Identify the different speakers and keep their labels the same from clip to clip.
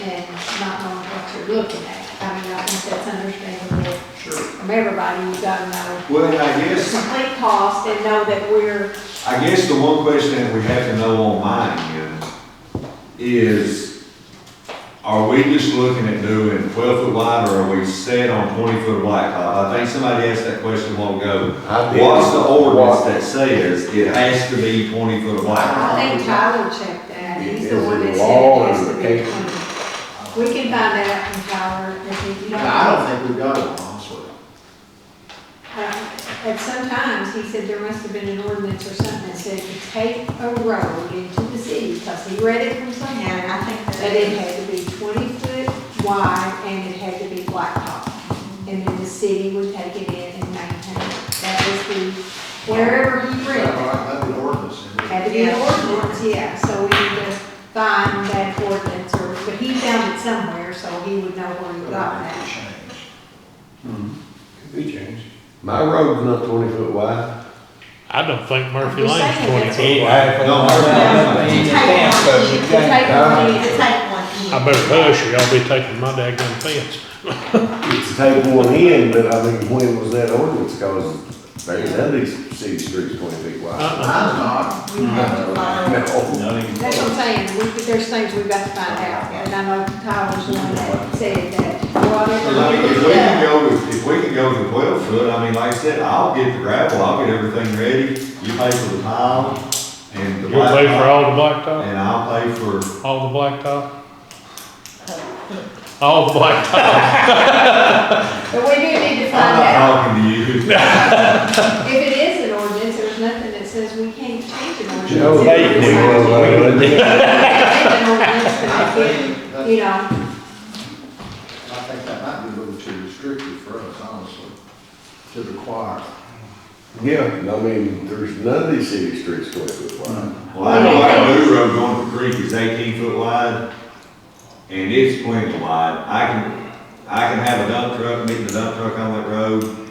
Speaker 1: and not knowing what you're looking at. I mean, I think that's understandable
Speaker 2: Sure.
Speaker 1: from everybody, you gotta know
Speaker 2: Well, and I
Speaker 1: the
Speaker 2: guess,
Speaker 1: complete cost and know that we're,
Speaker 2: I guess the one question that we have to know on mine then is, are we just looking at doing twelve foot wide or are we set on twenty foot blacktop? I think somebody asked that question a while ago.
Speaker 3: I did.
Speaker 2: What's the ordinance that says it has to be twenty foot of blacktop?
Speaker 1: I think Tyler checked that, he's the
Speaker 3: Is it
Speaker 1: one that said
Speaker 3: law
Speaker 1: it has
Speaker 3: or
Speaker 1: to
Speaker 3: the
Speaker 1: be clean. We can find that out from Tyler, if you don't.
Speaker 4: I don't think we've got one, honestly.
Speaker 1: Uh, At some times, he said there must have been an ordinance or something that said to take a road into the city, because he read it from somewhere.
Speaker 5: Yeah, I think
Speaker 1: That it had to be twenty foot wide and it had to be blacktop. And then the city would take it in and maintain it. That was the, wherever he read
Speaker 4: That's
Speaker 1: it,
Speaker 4: right, That'd be an ordinance. isn't it?
Speaker 1: had to be an
Speaker 5: Yeah.
Speaker 1: ordinance, yeah. So we need to find that ordinance or, but he found it somewhere, so he would know where he got that.
Speaker 4: Change.
Speaker 6: Could be changed.
Speaker 3: My road's not twenty foot wide.
Speaker 7: I don't think Murphy
Speaker 1: I'm just
Speaker 7: Lane's
Speaker 1: saying
Speaker 7: twenty
Speaker 1: that's-
Speaker 7: foot.
Speaker 2: No, I-
Speaker 5: You take one, you can take one, you can take one.
Speaker 7: I better hush or y'all be taking my daggone fence.
Speaker 3: It's take one in, but I mean, when was that ordinance? Cause there's none of these city streets twenty feet wide.
Speaker 7: Uh-uh.
Speaker 4: Mine's not.
Speaker 5: We have to find.
Speaker 3: No.
Speaker 1: That's what I'm saying, we, there's things we've got to find out, and I know Tyler's the one that said that,
Speaker 2: Well, I
Speaker 1: whatever
Speaker 2: mean, If
Speaker 1: we
Speaker 2: we can
Speaker 1: do,
Speaker 2: go, with- if we can go to twelve foot, I mean, like I said, I'll get the gravel, I'll get everything ready, you pay for the tile and the
Speaker 7: You'll pay
Speaker 2: blacktop,
Speaker 7: for all the blacktop,
Speaker 2: and I'll pay for,
Speaker 7: all the blacktop? All the blacktop.
Speaker 1: but we do need to
Speaker 2: I'm
Speaker 1: find out.
Speaker 2: not talking to you.
Speaker 1: If it is an ordinance, there's nothing that says we can't change an ordinance.
Speaker 3: No,
Speaker 1: If
Speaker 3: they
Speaker 1: it's
Speaker 3: do.
Speaker 1: not-
Speaker 3: Well, they-
Speaker 1: We can change an ordinance, but
Speaker 4: I
Speaker 1: I think,
Speaker 4: think, that-
Speaker 1: you know,
Speaker 4: I think that might be a little too restrictive for us, honestly, to require.
Speaker 3: Yeah, I mean, there's none of these city streets twenty foot wide.
Speaker 2: Well, I know like Blue Road going to Creek is eighteen foot wide, and it's plenty wide, I can, I can have a dump truck, meet the dump truck on that road,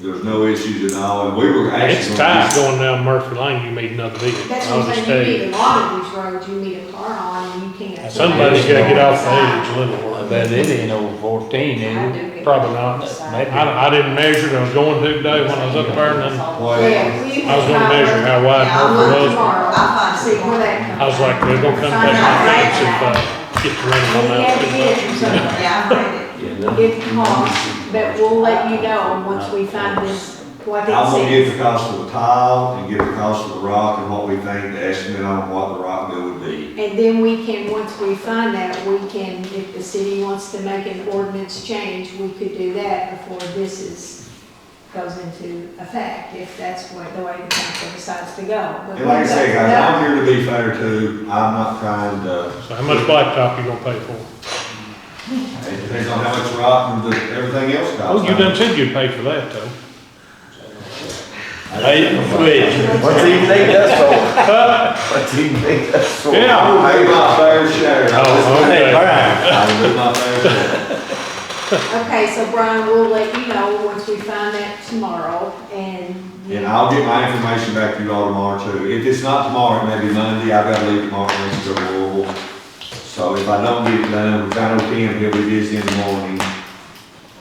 Speaker 2: there's no issues at all, and we were actually. gonna
Speaker 7: It's tight
Speaker 2: do-
Speaker 7: going down Murphy Lane, you meet another vehicle.
Speaker 1: that's
Speaker 7: I'll
Speaker 1: what
Speaker 7: just
Speaker 1: I'm
Speaker 7: tell
Speaker 1: saying, you
Speaker 7: you.
Speaker 1: need a lot of these roads, you need a car on, and you can't.
Speaker 7: Somebody's gotta get off the edge a little.
Speaker 8: I bet it ain't over fourteen, is
Speaker 5: I
Speaker 8: it?
Speaker 5: do get-
Speaker 7: Probably not.
Speaker 8: Maybe.
Speaker 7: I, I didn't measure it, I was going to today when I was up there and then
Speaker 2: Well,
Speaker 1: Yeah, we
Speaker 7: I was gonna measure how wide
Speaker 5: Yeah, I'll
Speaker 7: Murphy
Speaker 5: look
Speaker 7: was.
Speaker 1: tomorrow.
Speaker 5: I'll find
Speaker 1: See where
Speaker 5: it.
Speaker 1: that comes.
Speaker 7: I was like, they're gonna come take my fence if, uh, get to
Speaker 1: We
Speaker 7: running on
Speaker 1: had to
Speaker 7: that.
Speaker 1: get it from somewhere.
Speaker 5: Yeah, I read it.
Speaker 1: It costs, but we'll let you know once we find this, what it
Speaker 2: I'm gonna
Speaker 1: says.
Speaker 2: give the cost of the tile and give the cost of the rock and what we think the estimate on what the rock bill would be.
Speaker 1: And then we can, once we find that, we can, if the city wants to make an ordinance change, we could do that before this is, goes into effect, if that's what, the way the council decides to go. But
Speaker 2: And like I say,
Speaker 1: we'll
Speaker 2: guys,
Speaker 1: go
Speaker 2: I'm here to be fair too, I'm not trying to,
Speaker 7: So how much blacktop you gonna pay for?
Speaker 2: it depends on how much rock and the, everything else costs.
Speaker 7: Oh, you done said you'd pay for that though.
Speaker 3: What do you think that's for? What do you think that's for?
Speaker 7: Yeah.
Speaker 2: I pay my fair share,
Speaker 7: Oh,
Speaker 2: I
Speaker 7: okay.
Speaker 2: will do my fair share.
Speaker 1: that- Okay, so Brian, we'll let you know once we find that tomorrow, and.
Speaker 2: And I'll get my information back to you all tomorrow too. If it's not tomorrow, it may be Monday, I've gotta leave tomorrow, morning to go to Louisville. So if I don't get it done, if I don't can, he'll be busy in the morning,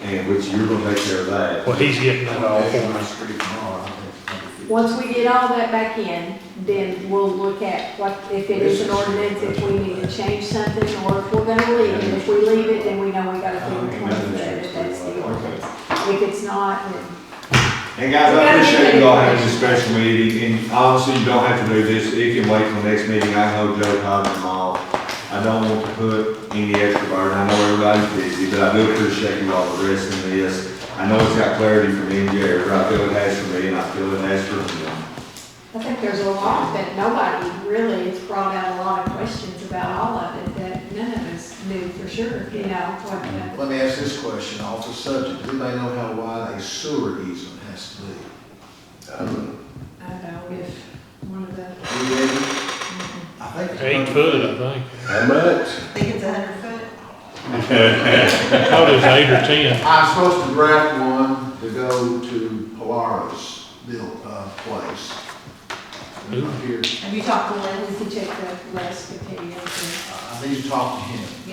Speaker 2: and which you're gonna take care of that.
Speaker 7: Well, he's getting uh, that all for
Speaker 4: On
Speaker 7: me.
Speaker 4: the street tomorrow, I think.
Speaker 1: Once we get all that back in, then we'll look at what, if it is an ordinance, if we need to change something, or if we're gonna leave it. If we leave it, then we know we gotta do it twenty-third, if that's the ordinance. If it's not, then.
Speaker 2: And guys, I appreciate you all having this special meeting, and obviously you don't have to do this, it can wait till next meeting, I know Joe, Todd, and all. I don't want to put any extra burden, I know everybody's busy, but I do appreciate you all addressing this. I know it's got clarity from MJ, or I feel it has for me, and I feel it has for him.
Speaker 1: I think there's a lot that nobody really, it's brought out a lot of questions about all of it that none of us knew for sure, you know, what the-
Speaker 4: Let me ask this question off the subject. Does anybody know how wide a sewer easement has to be?
Speaker 1: I don't know if one of the,
Speaker 4: Do you have it? I think. it's
Speaker 7: Eight
Speaker 4: 100
Speaker 7: foot, I think.
Speaker 3: How much?
Speaker 5: I think it's a hundred foot.
Speaker 7: I thought it was eight or ten.
Speaker 4: I'm supposed to draft one to go to Polaris built, uh, place. And I'm here,
Speaker 5: Have you talked to Lynn?
Speaker 1: if you check the list of videos and.
Speaker 4: I I need to talk to him.